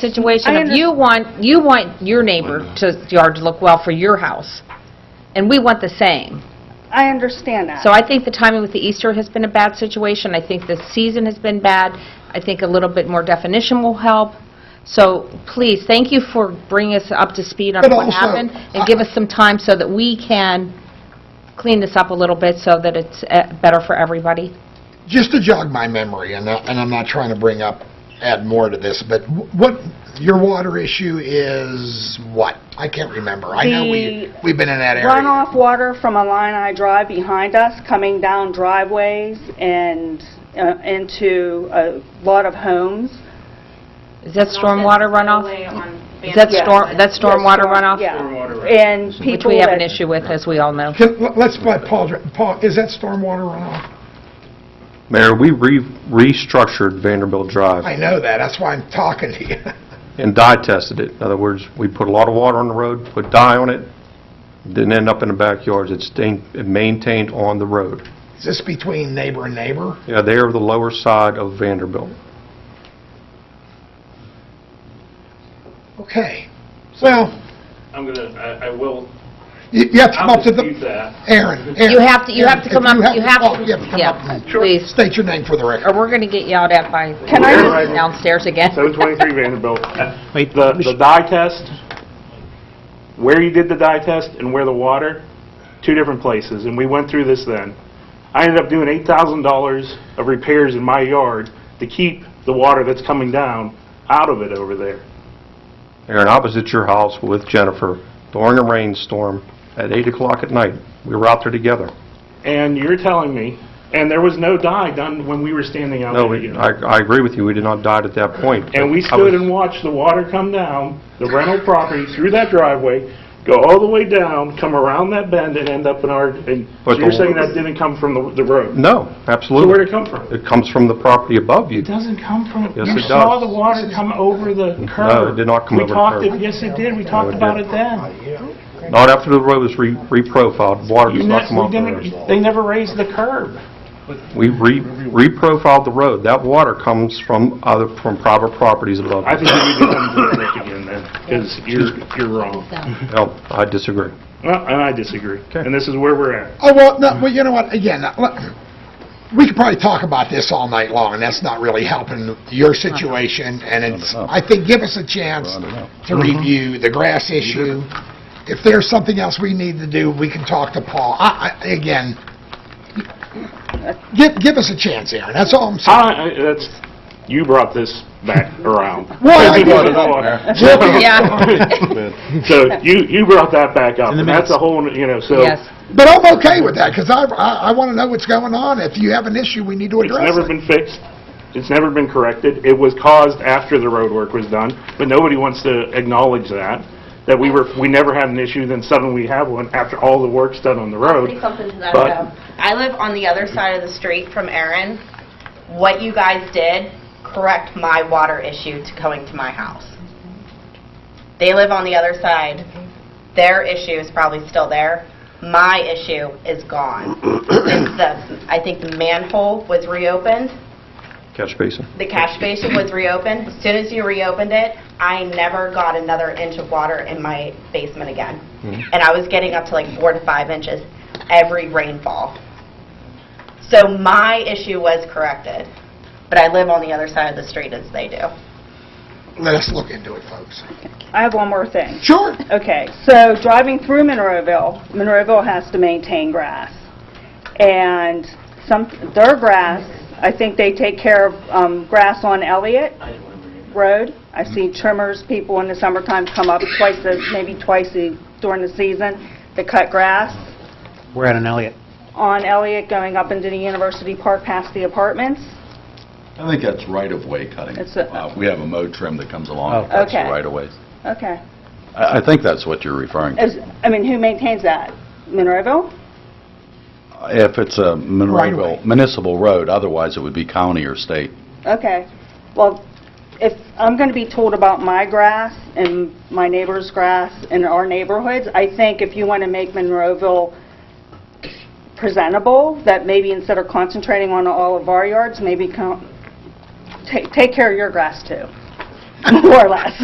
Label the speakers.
Speaker 1: situation
Speaker 2: I
Speaker 1: of you want, you want your neighbor to, yard to look well for your house, and we want the same.
Speaker 2: I understand that.
Speaker 1: So I think the timing with the Easter has been a bad situation, I think the season has been bad, I think a little bit more definition will help. So please, thank you for bringing us up to speed on
Speaker 3: But
Speaker 1: what
Speaker 3: also,
Speaker 1: happened, and give us some time so that we can clean this up a little bit so that it's uh, better for everybody.
Speaker 3: just to jog my memory, and I- and I'm not trying to bring up, add more to this, but wh- what, your water issue is what? I can't remember. I know we,
Speaker 2: The
Speaker 3: we've been in that area.
Speaker 2: Runoff water from Illini Drive behind us, coming down driveways and uh, into a lot of homes.
Speaker 1: Is that stormwater runoff? Is that
Speaker 2: Yeah.
Speaker 1: storm, that stormwaod
Speaker 2: Yes,
Speaker 1: runoff?
Speaker 2: Yeah. And people
Speaker 1: Which we have an
Speaker 2: that-
Speaker 1: issue with, as we all know.
Speaker 3: Can- let- Let's let Paul, dr- Paul, is that stormwater runoff?
Speaker 4: Mayor, we re- restructured Vanderbilt Drive
Speaker 3: I know that, that's why I'm talking to you.
Speaker 4: and dye tested it. In other words, we put a lot of water on the road, put dye on it, didn't end up in the backyards. It stayed, it maintained on the road.
Speaker 3: Is this between neighbor and neighbor?
Speaker 4: Yeah, they are the lower side of Vanderbilt.
Speaker 3: Okay. Well,
Speaker 5: I'm gonna, I, I will,
Speaker 3: you you have to come
Speaker 5: I'll
Speaker 3: up to the,
Speaker 5: dispute that.
Speaker 3: Aaron, Aaron.
Speaker 1: You have to, you
Speaker 3: Aaron,
Speaker 1: have to
Speaker 3: if
Speaker 1: come up, you have
Speaker 3: oh, you have to
Speaker 1: to,
Speaker 3: come up
Speaker 1: yeah,
Speaker 3: and
Speaker 1: please,
Speaker 3: state your name for the record.
Speaker 1: or we're going to get yelled at by
Speaker 2: Can I just-
Speaker 1: downstairs again.
Speaker 5: 723 Vanderbilt. The, the dye test, where you did the dye test and where the water, two different places, and we went through this then. I ended up doing $8,000 of repairs in my yard to keep the water that's coming down out of it over there.
Speaker 4: Aaron, I was at your house with Jennifer during a rainstorm at 8 o'clock at night. We were out there together.
Speaker 5: And you're telling me, and there was no dye done when we were standing out
Speaker 4: No,
Speaker 5: there.
Speaker 4: we-
Speaker 5: you know.
Speaker 4: I I agree with you, we did not dye it at that point.
Speaker 5: And we
Speaker 4: I
Speaker 5: stood
Speaker 4: was-
Speaker 5: and watched the water come down, the rental property through that driveway, go all the way down, come around that bend and end up in our, and so
Speaker 4: But
Speaker 5: you're
Speaker 4: the-
Speaker 5: saying that didn't come from the, the road?
Speaker 4: No,
Speaker 5: So
Speaker 4: absolutely.
Speaker 5: where'd it come from? It
Speaker 4: It comes from the property above you.
Speaker 5: doesn't come from,
Speaker 4: Yes,
Speaker 5: you
Speaker 4: it
Speaker 5: saw
Speaker 4: does.
Speaker 5: the water come over the curb.
Speaker 4: No, it did not come
Speaker 5: We
Speaker 4: over the
Speaker 5: talked
Speaker 4: curb.
Speaker 5: it- Yes, it did, we talked
Speaker 4: it
Speaker 5: about it
Speaker 4: didn't.
Speaker 5: then.
Speaker 4: Not after the road was re reprofiled, water does
Speaker 5: You
Speaker 4: not
Speaker 5: ne-
Speaker 4: come
Speaker 5: we
Speaker 4: off the road.
Speaker 5: didn't, they never raised the curb.
Speaker 4: We re reprofiled the road. That water comes from other, from private properties above.
Speaker 5: I think you need to come to the deck again then, because you're, you're wrong.
Speaker 4: No, Oh, I disagree.
Speaker 5: Well, and I disagree, and this is where we're at.
Speaker 3: Oh, well, no, well, you know what, again, uh, look, we could probably talk about this all night long, and that's not really helping your situation, and it's, I think, give us a chance to review the grass issue. If there's something else we need to do, we can talk to Paul. I, I, again, give, give us a chance, Aaron, that's all I'm saying.
Speaker 5: I, I- uh, that's, you brought this back around.
Speaker 3: Well, I brought
Speaker 5: Everything was
Speaker 3: it up,
Speaker 5: water.
Speaker 1: Yeah.
Speaker 5: So you, you brought that back up, and that's a whole, you know, so
Speaker 1: Yes.
Speaker 5: it's
Speaker 3: But I'm okay with that, because I, I, I want to know what's going on. If you have an issue, we need to address
Speaker 5: never
Speaker 3: it.
Speaker 5: been fixed, it's never been corrected, it was caused after the road work was done, but nobody wants to acknowledge that, that we were, we never had an issue, then suddenly we have one after all the work's done on the road.
Speaker 6: say something to that
Speaker 5: But-
Speaker 6: though. I live on the other side of the street from Aaron. What you guys did, correct my water issue to going to my house. They live on the other side. Their issue is probably still there. My issue is gone. It's the, I think the manhole was reopened
Speaker 4: Catch basin.
Speaker 6: the cash basin was reopened. As soon as you reopened it, I never got another inch of water in my basement again. And I was getting up to like four to five inches every rainfall. So my issue was corrected, but I live on the other side of the street as they do.
Speaker 3: Let us look into it, folks.
Speaker 2: I have one more thing.
Speaker 3: Sure.
Speaker 2: Okay, so driving through Monroeville, Monroeville has to maintain grass. And some, their grass, I think they take care of um, grass on Elliott Road. I see trimmers, people in the summertime come up twice, a- maybe twice a- during the season to cut grass
Speaker 7: We're at an Elliott.
Speaker 2: on Elliott going up into the University Park past the apartments.
Speaker 8: I think that's right-of-way cutting.
Speaker 2: It's a-
Speaker 8: Uh, We have a mow trim that comes
Speaker 7: Oh.
Speaker 8: along, that's the
Speaker 2: Okay.
Speaker 8: right-of-ways.
Speaker 2: Okay.
Speaker 8: I I think that's what you're referring to.
Speaker 2: Is- I mean, who maintains that? Monroeville?
Speaker 8: If it's a
Speaker 3: Right-of-way.
Speaker 8: municipal, municipal road, otherwise it would be county or state.
Speaker 2: Okay. Well, if I'm going to be told about my grass and my neighbor's grass in our neighborhoods, I think if you want to make Monroeville presentable, that maybe instead of concentrating on all of our yards, maybe co- ta- take care of your grass too. more or less.